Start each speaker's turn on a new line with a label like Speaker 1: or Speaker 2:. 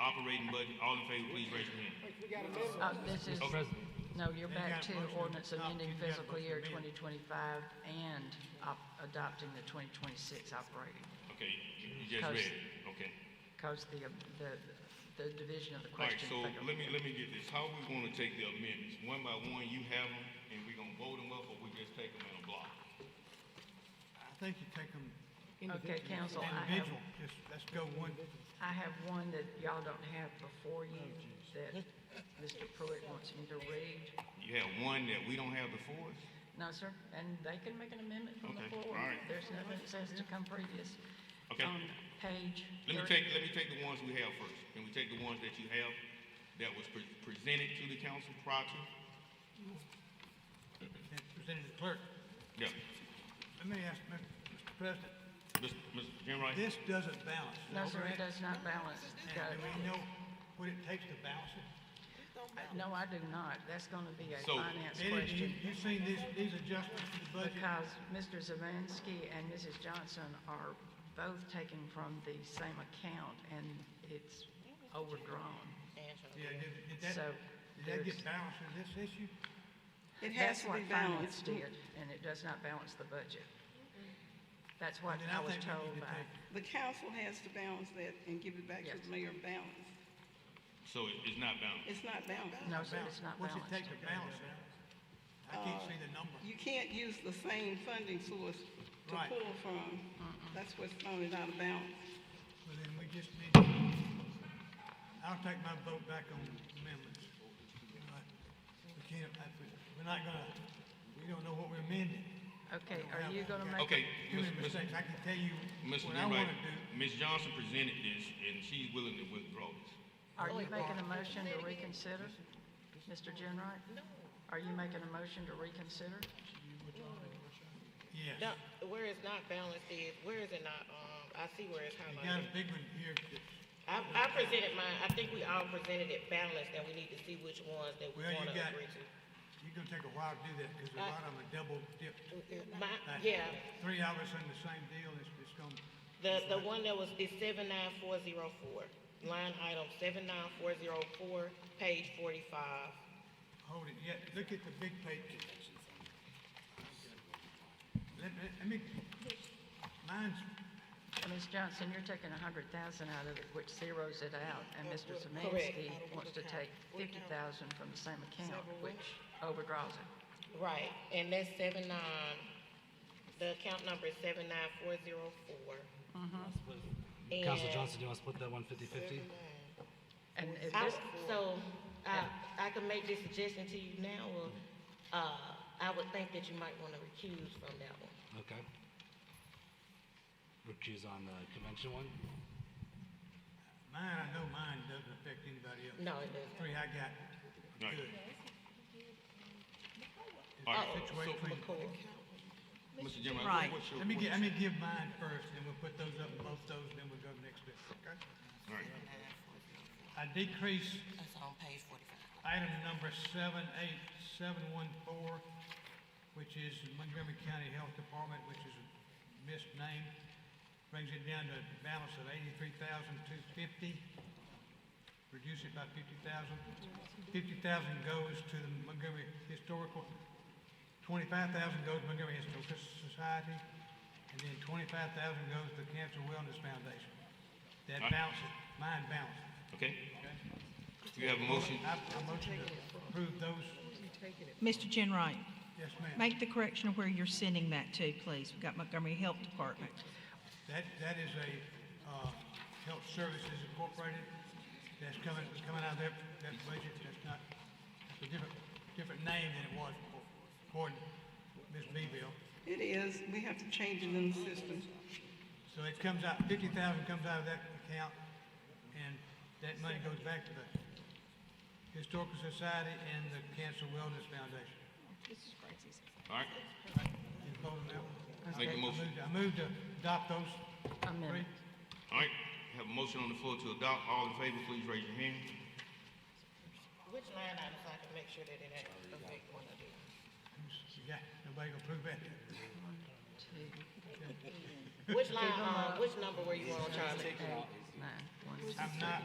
Speaker 1: operating budget, all in favor, please raise your hand.
Speaker 2: Uh, this is,
Speaker 1: Oh, President.
Speaker 2: no, you're back to ordinance amending fiscal year 2025 and op- adopting the 2026 operating.
Speaker 1: Okay, you you just
Speaker 2: Post.
Speaker 1: read it, okay.
Speaker 2: Because the, um, the, the division of the
Speaker 1: All right,
Speaker 2: question.
Speaker 1: so let me, let me get this, how we gonna take the amendments? One by one, you have them, and we gonna vote them up, or we just take them in a block?
Speaker 3: I think you take them
Speaker 2: Okay, council, I have,
Speaker 3: individual, just, let's go one,
Speaker 2: I have one that y'all don't have before you that Mr. Pruitt wants me to read.
Speaker 1: You have one that we don't have before us?
Speaker 2: No, sir, and they can make an amendment from the
Speaker 1: Okay,
Speaker 2: floor.
Speaker 1: all right.
Speaker 2: There's nothing that says to come previous.
Speaker 1: Okay.
Speaker 2: On page
Speaker 1: Let me take,
Speaker 2: thirty-
Speaker 1: let me take the ones we have first. Can we take the ones that you have that was pre- presented to the council prior to?
Speaker 3: and present it to the clerk.
Speaker 1: Yeah.
Speaker 3: Let me ask, Mr. Mr. President,
Speaker 1: Mr. Mr. Jim Wright?
Speaker 3: this doesn't balance, is
Speaker 2: No,
Speaker 3: that
Speaker 2: sir, it
Speaker 3: correct?
Speaker 2: does not balance.
Speaker 3: And do we know what it takes to balance it?
Speaker 2: No, I do not. That's gonna be a
Speaker 1: So-
Speaker 2: finance
Speaker 3: Eddie, do you,
Speaker 2: question.
Speaker 3: you seen these, these adjustments to the budget?
Speaker 2: Because Mr. Zavansky and Mrs. Johnson are both taken from the same account and it's overdrawn.
Speaker 3: Yeah, did, did that,
Speaker 2: So
Speaker 3: did that get
Speaker 2: there's-
Speaker 3: balanced in this issue?
Speaker 4: It has
Speaker 2: That's
Speaker 4: to be
Speaker 2: what finance
Speaker 4: balanced.
Speaker 2: did, and it does not balance the budget. That's what
Speaker 3: Then
Speaker 2: I
Speaker 3: I
Speaker 2: was
Speaker 3: think we
Speaker 2: told
Speaker 3: need to
Speaker 2: by,
Speaker 3: take-
Speaker 4: The council has to balance that and give it back to
Speaker 2: Yes.
Speaker 4: the mayor balanced.
Speaker 1: So it- it's not balanced.
Speaker 4: It's not balanced.
Speaker 2: no, sir, it's not
Speaker 3: What's it take
Speaker 2: balanced.
Speaker 3: to balance it? I can't see the number.
Speaker 4: You can't use the same funding source to
Speaker 3: Right.
Speaker 4: pull from. That's what's thrown it out of balance.
Speaker 3: Well, then we just need, to- I'll take my vote back on amendments. Uh, We can't, I- we- we're not gonna, we don't know what we're amending.
Speaker 2: Okay, are you gonna make?
Speaker 1: Okay,
Speaker 3: Too many
Speaker 1: Mr.
Speaker 3: mistakes. I can tell you
Speaker 1: Mr.
Speaker 3: what I
Speaker 1: Jim Wright,
Speaker 3: wanna do.
Speaker 1: Ms. Johnson presented this, and she's willing to withdraw this.
Speaker 2: Are you making a motion to reconsider, Mr. Jenright? No. Are you making a motion to reconsider?
Speaker 3: Yes.
Speaker 5: No, where it's not balanced is, where is it not, um, I see where it's
Speaker 3: You got a
Speaker 5: highlighted.
Speaker 3: big one here that's,
Speaker 5: I, I presented mine, I think we all presented it balanced, and we need to see which ones that we
Speaker 3: Well, you
Speaker 5: wanna
Speaker 3: got-
Speaker 5: agree to.
Speaker 3: you're gonna take a while to do that because a
Speaker 5: I-
Speaker 3: lot of them are double dipped.
Speaker 5: Uh, My,
Speaker 3: Like,
Speaker 5: yeah,
Speaker 3: Three hours on the same deal, it's, it's gonna,
Speaker 5: the, the one that was, is seven nine four zero four, line item seven nine four zero four, page forty-five.
Speaker 3: hold it yet. Look at the big picture. Let, let, let me, mine's
Speaker 2: Ms. Johnson, you're taking a hundred thousand out of it, which zeroes it out, and Mr.
Speaker 5: Correct.
Speaker 2: Samansky wants to take fifty thousand from the same account, which overdraws it.
Speaker 5: Right, and that's seven nine, the account number is seven nine four zero four.
Speaker 6: Council Johnson, do you want to split that one fifty fifty?
Speaker 2: And if
Speaker 5: I,
Speaker 2: this,
Speaker 5: so, uh, I, I can make this suggestion to you now, or, uh, I would think that you might wanna recuse from that one.
Speaker 6: Okay. Recuse on the convention one?
Speaker 3: Mine, I know mine doesn't affect anybody else.
Speaker 5: No, it doesn't.
Speaker 3: Three I got,
Speaker 1: Right.
Speaker 3: good.
Speaker 1: All right,
Speaker 5: Oh,
Speaker 3: Situate
Speaker 5: so
Speaker 3: clean.
Speaker 5: McCoy.
Speaker 1: Mr. Jim Wright,
Speaker 4: Right.
Speaker 1: what's your?
Speaker 3: Let me
Speaker 1: what's
Speaker 3: get, let me give mine first, then we'll put those up, both those, then we'll go next to it, okay?
Speaker 1: your- All right,
Speaker 3: I decrease
Speaker 5: That's on page forty-five.
Speaker 3: item number seven eight seven one four, which is Montgomery County Health Department, which is misnamed. Brings it down to a balance of eighty-three thousand two fifty. Reduce it by fifty thousand. Fifty thousand goes to the Montgomery Historical, twenty-five thousand goes to Montgomery Historical Society, and then twenty-five thousand goes to the Cancer Wellness Foundation. That
Speaker 1: Aye.
Speaker 3: balances, mine balances.
Speaker 1: okay. You have a motion?
Speaker 3: I, I motion to approve those,
Speaker 7: Mr. Jenright,
Speaker 3: yes, ma'am.
Speaker 7: make the correction of where you're sending that to, please. We've got Montgomery Health Department.
Speaker 3: That, that is a, uh, Health Services Incorporated, that's coming, coming out of that, that budget, that's not, that's a different, different name than it was before, according to Ms. Beville.
Speaker 4: It is, we have to change it in the system.
Speaker 3: So it comes out, fifty thousand comes out of that account, and that money goes back to the Historical Society and the Cancer Wellness Foundation.
Speaker 1: All right,
Speaker 3: You following that one?
Speaker 1: make a
Speaker 3: I
Speaker 1: motion.
Speaker 3: moved, I moved to adopt those
Speaker 2: amendment,
Speaker 3: three.
Speaker 1: All right, have a motion on the floor to adopt. All in favor, please raise your hand.
Speaker 5: Which line item, so I can make sure that it doesn't affect one of these?
Speaker 3: Yeah, nobody gonna prove that.
Speaker 2: two,
Speaker 5: Which line, uh, which number were you on, Charlie?
Speaker 2: eight, nine, one,
Speaker 3: I'm not,